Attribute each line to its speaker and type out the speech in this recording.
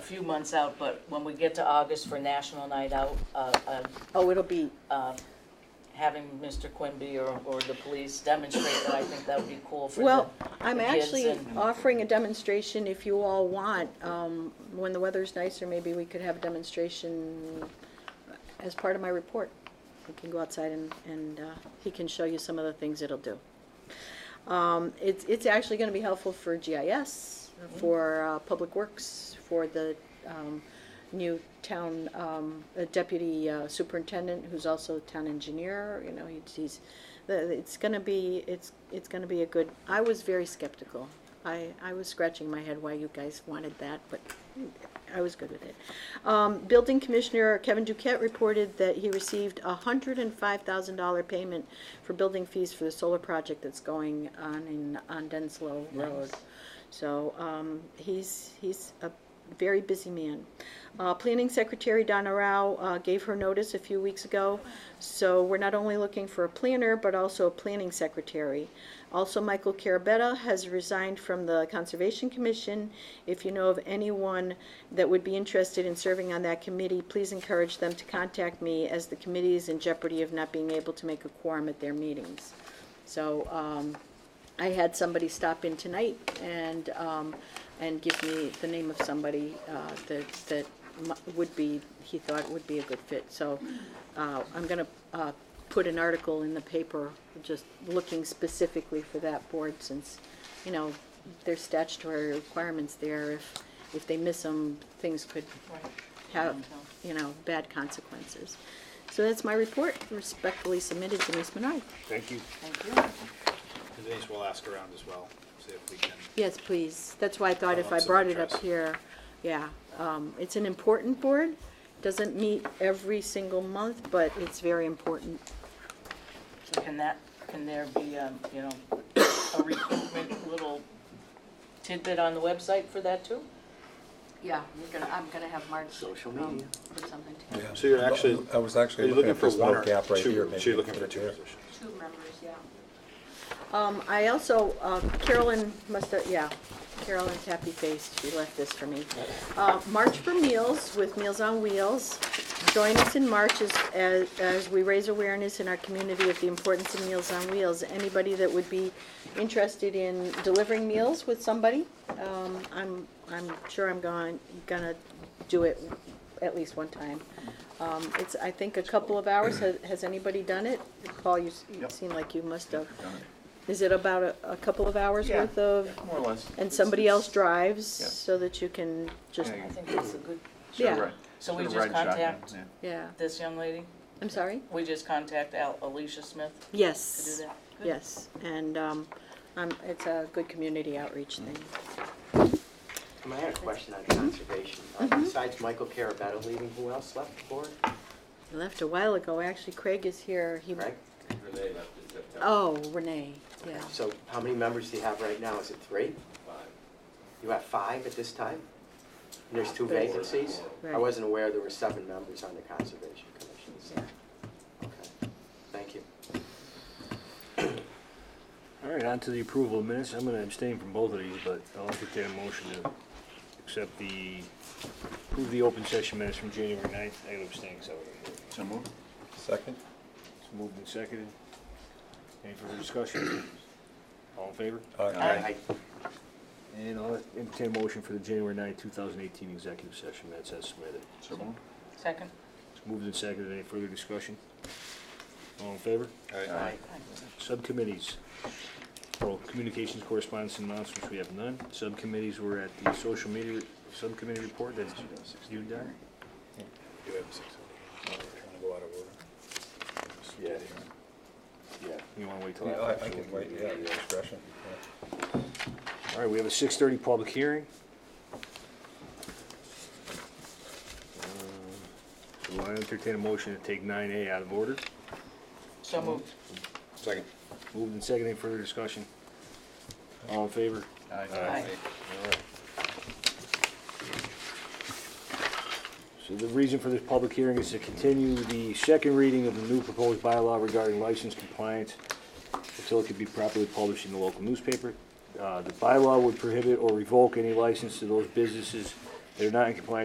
Speaker 1: few months out, but when we get to August for National Night Out, uh, uh,
Speaker 2: Oh, it'll be,
Speaker 1: uh, having Mr. Quimby or, or the police demonstrate that, I think that would be cool for the.
Speaker 2: well, I'm
Speaker 1: the kids
Speaker 2: actually
Speaker 1: and-
Speaker 2: offering a demonstration if you all want. Um, When the weather's nicer, maybe we could have a demonstration as part of my report. We can go outside and, and uh, he can show you some of the things it'll do. Um, It's, it's actually going to be helpful for GIS,
Speaker 1: Mm-hmm.
Speaker 2: for uh, Public Works, for the um, new town um, uh, deputy uh, superintendent, who's also town engineer, you know, he's- he's, the- it's going to be, it's, it's going to be a good, I was very skeptical. I, I was scratching my head why you guys wanted that, but I was good with it. Um, Building Commissioner Kevin Duquette reported that he received a hundred and five thousand dollar payment for building fees for the solar project that's going on in, on Denslow Road. So, um, he's, he's a very busy man. Uh, Planning Secretary Donna Rao uh, gave her notice a few weeks ago, so we're not only looking for a planner, but also a planning secretary. Also, Michael Carabetta has resigned from the Conservation Commission. If you know of anyone that would be interested in serving on that committee, please encourage them to contact me, as the committee is in jeopardy of not being able to make a quorum at their meetings. So, um, I had somebody stop in tonight and, um, and give me the name of somebody, uh, that, that mu- would be, he thought would be a good fit. So, uh, I'm gonna, uh, put an article in the paper, just looking specifically for that board since, you know, there's statutory requirements there. If, if they miss them, things could have, you know, bad consequences. So that's my report, respectfully submitted, Denise Menard.
Speaker 3: Thank you.
Speaker 1: Thank you.
Speaker 3: Denise will ask around as well, see if we can.
Speaker 2: Yes, please. That's why I thought if
Speaker 3: Oh,
Speaker 2: I
Speaker 3: it's of
Speaker 2: brought it up
Speaker 3: interest.
Speaker 2: here, yeah. Um, It's an important board, doesn't meet every single month, but it's very important.
Speaker 1: So can that, can there be, um, you know, a recruitment little tidbit on the website for that too?
Speaker 2: Yeah, you're gonna, I'm gonna have Marge.
Speaker 3: Social media.
Speaker 2: Put something
Speaker 4: Yeah.
Speaker 3: So you're actually-
Speaker 4: I was
Speaker 3: Are
Speaker 4: actually
Speaker 3: you
Speaker 4: looking at this
Speaker 3: one
Speaker 4: little
Speaker 3: or
Speaker 4: gap right
Speaker 3: two?
Speaker 4: here.
Speaker 3: So
Speaker 4: maybe
Speaker 3: you're looking for
Speaker 4: right
Speaker 3: two
Speaker 4: there.
Speaker 3: positions.
Speaker 2: Two members, yeah. Um, I also, uh, Carolyn must have, yeah, Carolyn's happy faced, she left this for me. Uh, March for Meals with Meals on Wheels. Join us in March as, as, as we raise awareness in our community of the importance of Meals on Wheels. Anybody that would be interested in delivering meals with somebody, um, I'm, I'm sure I'm going, gonna do it at least one time. Um, it's, I think, a couple of hours. Has, has anybody done it? Paul, you, s- you seem like you must have. Is it about a, a couple of hours
Speaker 5: Yeah,
Speaker 2: worth of?
Speaker 5: More or less.
Speaker 2: And somebody else drives
Speaker 5: Yeah.
Speaker 2: so that you can just,
Speaker 5: Yeah,
Speaker 1: I think that's a good,
Speaker 2: yeah.
Speaker 1: So we
Speaker 5: Sort of
Speaker 1: just
Speaker 5: riding shotgun,
Speaker 1: contact-
Speaker 5: yeah.
Speaker 2: yeah.
Speaker 1: this young lady,
Speaker 2: I'm sorry?
Speaker 1: we just contact Al- Alicia Smith to do
Speaker 2: Yes,
Speaker 1: that? Good.
Speaker 2: yes. And, um, um, it's a good community outreach thing.
Speaker 6: Um, I had a question on conservation. Uh,
Speaker 2: Mm-hmm.
Speaker 6: Besides Michael Carabetta leaving, who else left the board?
Speaker 2: I Left a while ago. Actually, Craig is here. He,
Speaker 6: Right?
Speaker 2: oh, Renee, yeah.
Speaker 6: So how many members do you have right now? Is it three? You have five at this time? And there's two
Speaker 2: Four.
Speaker 6: vacancies?
Speaker 2: Right.
Speaker 6: I wasn't aware there were seven members on the Conservation Commission. so- Okay, thank you.
Speaker 7: All right, on to the approval of minutes. I'm going to abstain from both of these, but I'll entertain a motion to accept the, approve the open session minutes from January 9th. I gotta abstain because I wasn't here.
Speaker 5: So moved.
Speaker 4: Second?
Speaker 7: It's moved and seconded. Any further discussion? All in favor?
Speaker 4: Aye.
Speaker 6: I-
Speaker 7: And I'll entertain a motion for the January 9th, 2018 executive session minutes as submitted.
Speaker 5: So moved.
Speaker 1: Second?
Speaker 7: It's moved and seconded. Any further discussion? All in favor?
Speaker 6: I-
Speaker 7: Subcommittees. Well, communications, correspondence, and announcements, we have none. Subcommittees were at the social media subcommittee report, that's you, Doc?
Speaker 3: You have six. Oh, we're Trying to go out of order.
Speaker 7: Yeah. Yeah. You wanna wait till
Speaker 4: Yeah,
Speaker 7: after?
Speaker 4: I I
Speaker 7: so we
Speaker 4: can
Speaker 7: can
Speaker 4: wait,
Speaker 7: do
Speaker 4: yeah,
Speaker 7: that.
Speaker 4: your discretion.
Speaker 7: All right, we have a six thirty public hearing. Uh, Um, So I entertain a motion to take nine A out of order.
Speaker 1: So moved.
Speaker 3: Second.
Speaker 7: Moved and seconded, Any further discussion? All in favor?
Speaker 1: Aye.
Speaker 7: So the reason for this public hearing is to continue the second reading of the new proposed bylaw regarding license compliance until it could be properly published in the local newspaper. Uh, The bylaw would prohibit or revoke any license to those businesses that are not in compliance